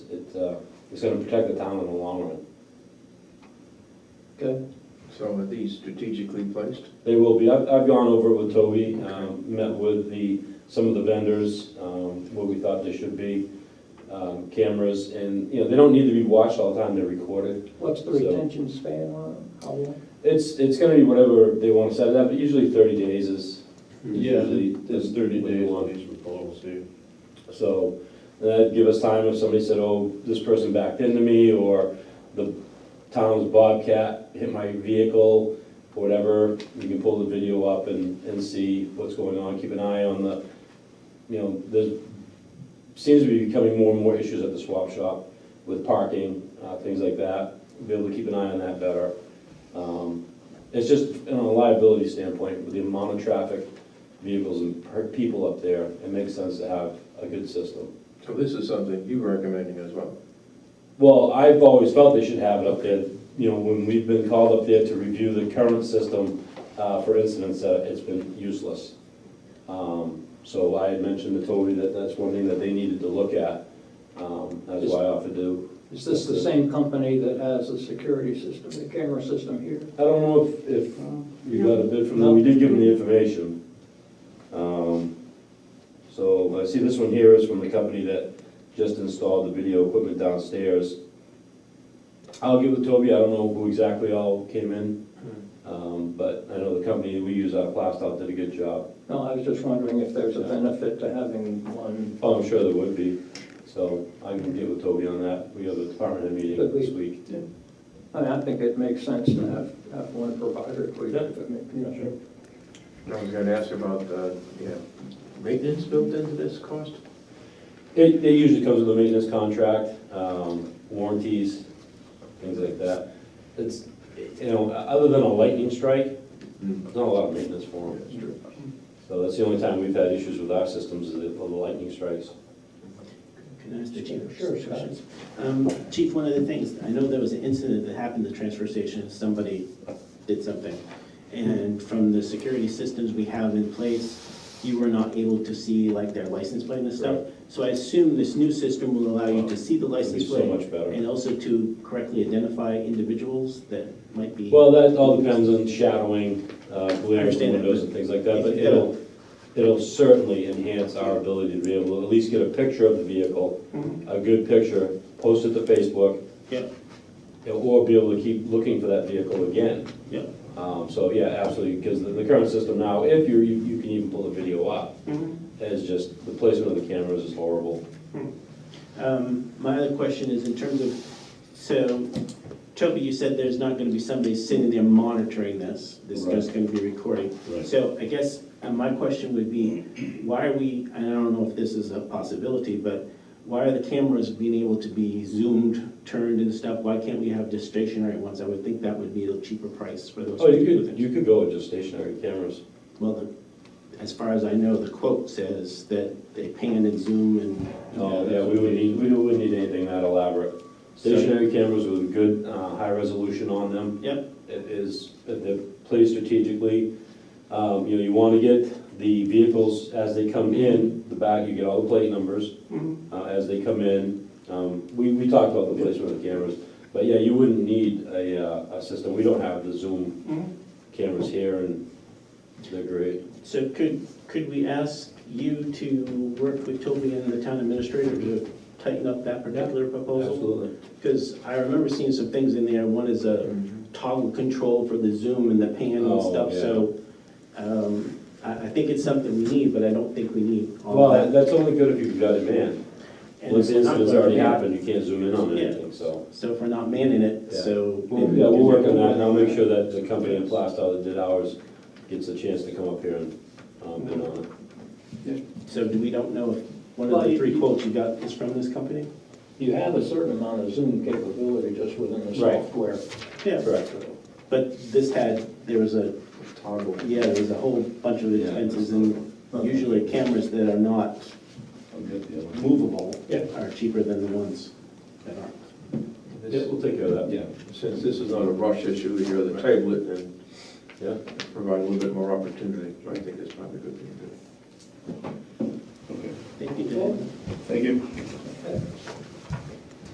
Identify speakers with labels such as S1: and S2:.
S1: it's, uh, it's gonna protect the town in the long run.
S2: Okay.
S3: So are these strategically placed?
S1: They will be, I've, I've gone over it with Toby, um, met with the, some of the vendors, um, what we thought they should be, um, cameras, and, you know, they don't need to be watched all the time, they're recorded.
S2: What's the
S1: So-
S2: retention span on them? How long?
S1: It's, it's gonna be whatever they want to set it up, but usually thirty days is,
S4: Yeah,
S1: Usually
S4: there's
S1: it's
S4: thirty
S1: Mm-hmm. what you
S4: days
S1: want.
S4: on these proposals, yeah.
S1: so, that'd give us time if somebody said, oh, this person backed into me, or the town's bobcat hit my vehicle, or whatever, you can pull the video up and, and see what's going on, keep an eye on the, you know, there seems to be becoming more and more issues at the swap shop with parking, uh, things like that, be able to keep an eye on that better. Um, It's just, you know, a liability standpoint, with the amount of traffic, vehicles and per- people up there, it makes sense to have a good system.
S3: So this is something you're recommending as well?
S1: Well, I've always felt they should have it up there, you know, when we've been called up there to review the current system, uh, for incidents, uh, it's been useless. Um, so I had mentioned to Toby that that's one thing that they needed to look at, um, that's why I offered to.
S2: Is this the same company that has the security system, the camera system here?
S1: I don't know if, if
S2: Mm-hmm.
S1: you got a bid from them, we did give them the information. Um, so I see this one here is from the company that just installed the video equipment downstairs. I'll get with Toby, I don't know who exactly all came in, um, but I know the company we use out of Plastow did a good job.
S2: No, I was just wondering if there's a benefit to having one.
S1: Oh, I'm sure there would be, so I can get with Toby on that, we have a department head meeting
S2: But we-
S1: this week.
S2: I mean, I think it makes sense to have, have one provider if we,
S1: Yeah.
S2: if it makes, you know.
S3: I was gonna ask about, uh, yeah, maintenance built into this cost?
S1: It, it usually comes with a maintenance contract, um, warranties, things like that. It's, you know, other than a lightning strike, there's not a lot of maintenance for them.
S3: That's true.
S1: So that's the only time we've had issues with our systems is the, the lightning strikes.
S5: Can I ask the chief?
S2: Sure,
S5: some
S2: Scott.
S5: questions? Um, Chief, one of the things, I know there was an incident that happened at the transfer station, somebody did something. And from the security systems we have in place, you were not able to see like their license plate and stuff. So I assume this new system will allow you to see the
S1: It'd be
S5: license
S1: so
S5: plate
S1: much better.
S5: and also to correctly identify individuals that might be.
S1: Well, that all depends on shadowing, uh, glare from
S5: understand that,
S1: windows and things like that,
S5: if
S1: but
S5: you get a-
S1: it'll, it'll certainly enhance our ability to be able to at least get a picture of the vehicle,
S5: Mm-hmm.
S1: a good picture, post it to Facebook,
S5: Yeah,
S1: or be able to keep looking for that vehicle again.
S5: yeah.
S1: Um, So, yeah, absolutely, because the the current system now, if you're, you you can even pull the video up, is just, the placement of the cameras is horrible.
S5: Um, My other question is in terms of, so, Toby, you said there's not gonna be somebody sitting there monitoring this, this is just gonna be recording.
S1: Right.
S5: So I guess, uh my question would be, why are we, and I don't know if this is a possibility, but why are the cameras being able to be zoomed, turned and stuff? Why can't we have just stationary ones? I would think that would be a cheaper price for those.
S1: Oh, you
S5: particular
S1: could,
S5: things.
S1: you could go with just stationary cameras.
S5: Well, the- as far as I know, the quote says that they pan and zoom and.
S1: Oh, yeah, we would need, we wouldn't need anything that elaborate. Stationary cameras with good, uh, high resolution on them,
S5: Yep.
S1: it is, they're placed strategically. Um, You know, you want to get the vehicles as they come in, the back, you get all the plate numbers uh, as they come in. Um, We, we talked about the placement of the cameras, but yeah, you wouldn't need a, uh, a system, we don't have the Zoom cameras here and they're great.
S5: So could, could we ask you to work with Toby and the town administrator to tighten up that particular proposal?
S1: Absolutely.
S5: Because I remember seeing some things in there, one is a toggle control for the zoom and the pan
S1: Mm-hmm. Oh,
S5: and stuff,
S1: yeah.
S5: so um, I, I think it's something we need, but I don't think we need all
S1: Well,
S5: that.
S1: that's only good if you've got it manned.
S5: And
S1: Once
S5: if
S1: the
S5: we're not
S1: incident's
S5: gonna
S1: already
S5: man-
S1: happened, you can't zoom in on
S5: Yeah.
S1: anything, so.
S5: So if we're not manning it,
S1: Yeah.
S5: so.
S1: Well, Yeah, we'll work on that and I'll make sure that the company in Plastow that did ours gets a chance to come up here and um, bid on it.
S5: So do we don't know if one
S2: Well,
S5: of the
S2: you-
S5: three quotes you got is from this company?
S2: You have a certain amount of Zoom capability just within the
S1: Right.
S2: software.
S5: Yeah.
S1: Correct.
S5: But this had, there was a
S3: Toggle.
S5: Yeah, there's a whole bunch of expenses, and usually cameras that are not movable
S2: Yeah.
S5: are cheaper than the ones that aren't.
S1: Yeah, we'll take care of that.
S3: Yeah, since this is not a rush issue, you're the table it and
S1: Yeah.
S3: provide a little bit more opportunity, so I think that's probably a good thing to do.
S4: Okay.
S5: Thank you, Dave.
S4: Thank you.